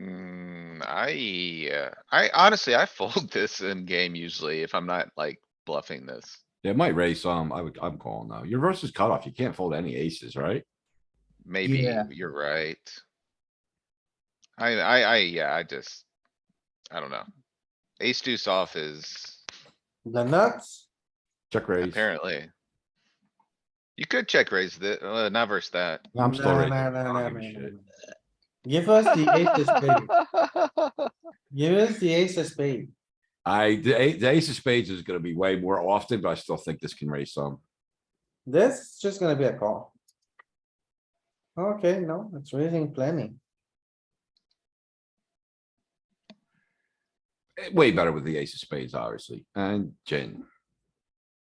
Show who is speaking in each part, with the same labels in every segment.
Speaker 1: Mm, I, uh, I honestly, I fold this in game usually if I'm not like bluffing this.
Speaker 2: It might raise some. I would, I'm calling though. Your versus cutoff, you can't fold any aces, right?
Speaker 1: Maybe
Speaker 3: Yeah.
Speaker 1: you're right. I, I, I, yeah, I just, I don't know. Ace deuce off is
Speaker 3: The nuts,
Speaker 2: Check raise.
Speaker 1: apparently. You could check raise the, uh, not verse that.
Speaker 2: I'm still
Speaker 3: No,
Speaker 2: raising.
Speaker 3: no,
Speaker 2: I
Speaker 3: no,
Speaker 2: don't
Speaker 3: no,
Speaker 2: give a
Speaker 3: no, no,
Speaker 2: shit.
Speaker 3: no. Give us the ace of spade. Give us the ace of spade.
Speaker 2: I, the ace, the ace of spades is gonna be way more often, but I still think this can raise some.
Speaker 3: This is just gonna be a call. Okay, no, it's raising plenty.
Speaker 2: Eh, Way better with the ace of spades, obviously, and gin.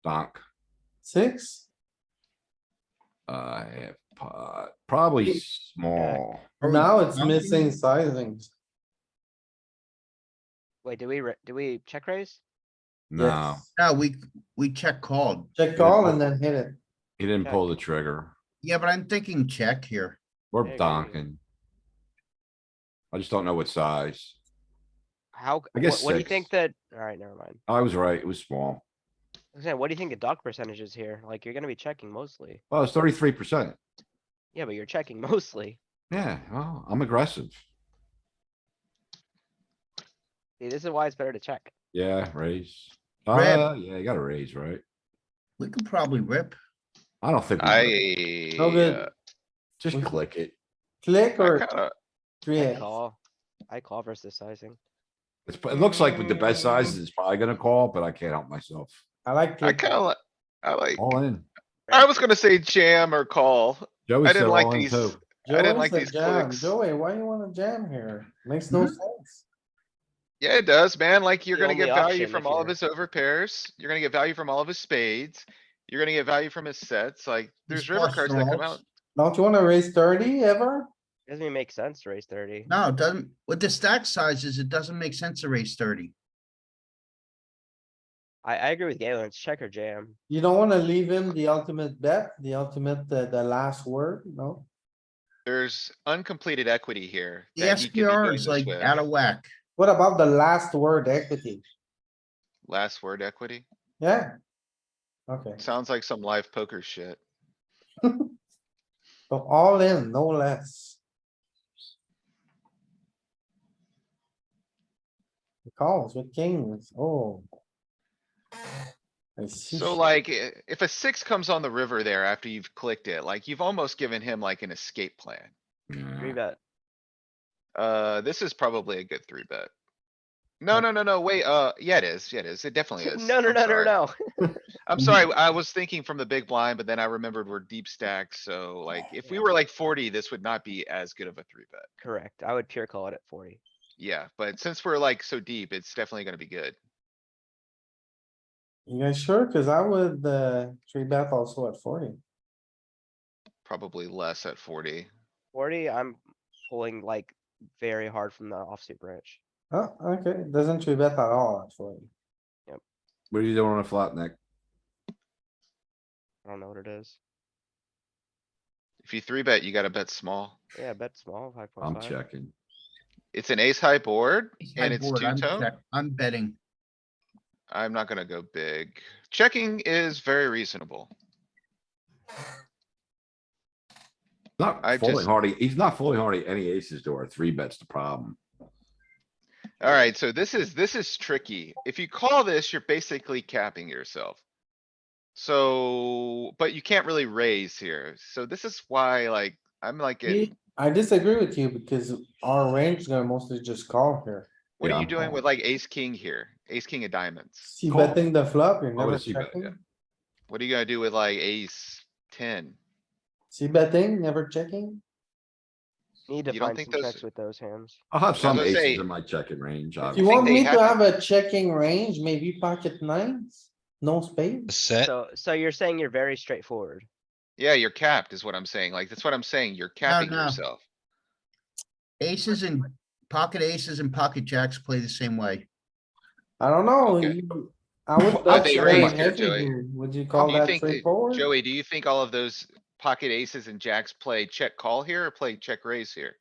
Speaker 2: Donk,
Speaker 3: Six,
Speaker 2: uh, half pot, probably small.
Speaker 3: now it's missing sizings.
Speaker 4: Wait, do we, ra- do we check raise?
Speaker 2: No,
Speaker 3: Yes.
Speaker 5: No, we, we check called.
Speaker 3: Check call and then hit it.
Speaker 2: he didn't pull the trigger.
Speaker 5: Yeah, but I'm thinking check here.
Speaker 4: There
Speaker 2: We're
Speaker 4: you go.
Speaker 2: donking. I just don't know what size.
Speaker 4: How,
Speaker 2: I
Speaker 4: c-
Speaker 2: guess
Speaker 4: what, what do you think
Speaker 2: six.
Speaker 4: that, alright, never mind.
Speaker 2: I was right, it was small.
Speaker 4: I was saying, what do you think the dock percentage is here? Like, you're gonna be checking mostly.
Speaker 2: Well, it's thirty-three percent.
Speaker 4: Yeah, but you're checking mostly.
Speaker 2: Yeah, well, I'm aggressive.
Speaker 4: See, this is why it's better to check.
Speaker 2: Yeah, raise.
Speaker 5: Rip.
Speaker 2: Uh, yeah, you gotta raise, right?
Speaker 5: We could probably rip.
Speaker 2: I don't think. we rip.
Speaker 1: I,
Speaker 3: good.
Speaker 1: uh,
Speaker 2: Just
Speaker 3: we-
Speaker 2: click it.
Speaker 3: Click
Speaker 1: I
Speaker 3: or
Speaker 1: kinda,
Speaker 3: three
Speaker 4: I
Speaker 3: X.
Speaker 4: call, I call versus sizing.
Speaker 2: It's, it looks like with the best sizes, it's probably gonna call, but I can't help myself.
Speaker 3: I like.
Speaker 1: I
Speaker 3: click.
Speaker 1: kinda, li- I like,
Speaker 2: All in.
Speaker 1: I was gonna say jam or call.
Speaker 2: Joey
Speaker 1: I
Speaker 2: said
Speaker 1: didn't like
Speaker 2: all in
Speaker 1: these.
Speaker 2: too.
Speaker 1: I didn't
Speaker 3: Joey
Speaker 1: like
Speaker 3: said
Speaker 1: these
Speaker 3: jam.
Speaker 1: clicks.
Speaker 3: Joey, why you wanna jam here? Makes no
Speaker 2: Mm-hmm.
Speaker 3: sense.
Speaker 1: Yeah, it does, man. Like, you're
Speaker 4: The
Speaker 1: gonna get
Speaker 4: only
Speaker 1: value
Speaker 4: option
Speaker 1: from
Speaker 4: if
Speaker 1: all of
Speaker 4: you're-
Speaker 1: his overpairs. You're gonna get value from all of his spades. You're gonna get value from his sets, like, there's river
Speaker 5: flush
Speaker 1: cards that come out.
Speaker 5: draws.
Speaker 3: Don't you wanna raise thirty ever?
Speaker 4: Doesn't even make sense to raise thirty.
Speaker 5: No, it doesn't, with the stack sizes, it doesn't make sense to raise thirty.
Speaker 4: I, I agree with Galen, it's check or jam.
Speaker 3: You don't wanna leave him the ultimate bet, the ultimate, the, the last word, no?
Speaker 1: There's uncompleted equity here.
Speaker 5: The
Speaker 1: that he could be doing
Speaker 5: SPR is
Speaker 1: this
Speaker 5: like
Speaker 1: with.
Speaker 5: out of whack.
Speaker 3: What about the last word equity?
Speaker 1: Last word equity.
Speaker 3: Yeah. Okay,
Speaker 1: Sounds like some live poker shit.
Speaker 3: so all in, no less. He Calls with kings, oh. I see.
Speaker 1: So like, i- if a six comes on the river there after you've clicked it, like, you've almost given him like an escape plan.
Speaker 4: Three
Speaker 2: Yeah.
Speaker 4: bet.
Speaker 1: Uh, this is probably a good three bet. No, no, no, no, wait, uh, yeah, it is, Oh, yeah, it is. It definitely is.
Speaker 4: No, no,
Speaker 1: I'm
Speaker 4: no, no,
Speaker 1: sorry.
Speaker 4: no.
Speaker 1: I'm sorry, I was thinking from the big blind, but then I remembered we're deep stacked, so like, if we were like forty, this would not be as good of a three bet.
Speaker 4: Correct, I would pure call it at forty.
Speaker 1: Yeah, but since we're like so deep, it's definitely gonna be good.
Speaker 3: You guys sure? Cause I would, uh, three bet also at forty.
Speaker 1: Probably less at forty.
Speaker 4: Forty, I'm pulling like very hard from the offsuit branch.
Speaker 3: Oh, okay, doesn't three bet at all at forty.
Speaker 2: What are you doing on a flat neck?
Speaker 4: I don't know what it is.
Speaker 1: If you three bet, you gotta bet small.
Speaker 4: Yeah, bet small, five point
Speaker 2: I'm
Speaker 4: five.
Speaker 2: checking.
Speaker 1: It's an ace high board.
Speaker 5: My
Speaker 1: And it's
Speaker 5: board, I'm
Speaker 1: two-tone?
Speaker 5: check- I'm betting.
Speaker 1: I'm not gonna go big. Checking is very reasonable.
Speaker 2: Not
Speaker 1: I
Speaker 2: fully
Speaker 1: just-
Speaker 2: hardy, he's not fully hardy any aces to our three bets the problem.
Speaker 1: Alright, so this is, this is tricky. If you call this, you're basically capping yourself. So, but you can't really raise here. So this is why like, I'm like, at-
Speaker 3: Me- I disagree with you because our range is gonna mostly just call here.
Speaker 1: what
Speaker 2: Yeah,
Speaker 1: are you
Speaker 2: I'm
Speaker 1: doing
Speaker 2: calling.
Speaker 1: with like ace, king here? Ace, king of diamonds?
Speaker 3: See
Speaker 2: Call.
Speaker 3: betting the flop, you're
Speaker 2: Why would
Speaker 3: never
Speaker 2: I see bet, yeah.
Speaker 3: checking.
Speaker 1: What are you gonna do with like ace ten?
Speaker 3: See betting, never checking.
Speaker 4: Need to
Speaker 1: You don't
Speaker 4: find
Speaker 1: think
Speaker 4: some
Speaker 1: those-
Speaker 4: checks with those hands.
Speaker 2: I'll have some
Speaker 1: gonna say-
Speaker 2: aces in my checking range,
Speaker 3: You
Speaker 2: obviously.
Speaker 3: want
Speaker 1: they
Speaker 3: me
Speaker 1: have
Speaker 3: to have a checking range, maybe pocket nines, no spades?
Speaker 6: Set,
Speaker 4: So, so you're saying you're very straightforward.
Speaker 1: Yeah, you're capped is what I'm saying. Like, that's what I'm saying. You're capping
Speaker 5: no.
Speaker 1: yourself.
Speaker 5: Aces and pocket aces and pocket jacks play the same way.
Speaker 3: I don't know.
Speaker 1: Okay.
Speaker 3: you- I would.
Speaker 1: I
Speaker 3: bet
Speaker 1: think
Speaker 3: your
Speaker 1: raise
Speaker 3: range
Speaker 1: here,
Speaker 3: heavy
Speaker 1: Joey.
Speaker 3: here. Would you call
Speaker 1: do you
Speaker 3: that
Speaker 1: think that
Speaker 3: straightforward?
Speaker 1: Joey, do you think all of those pocket aces and jacks play check call here or play check raise here?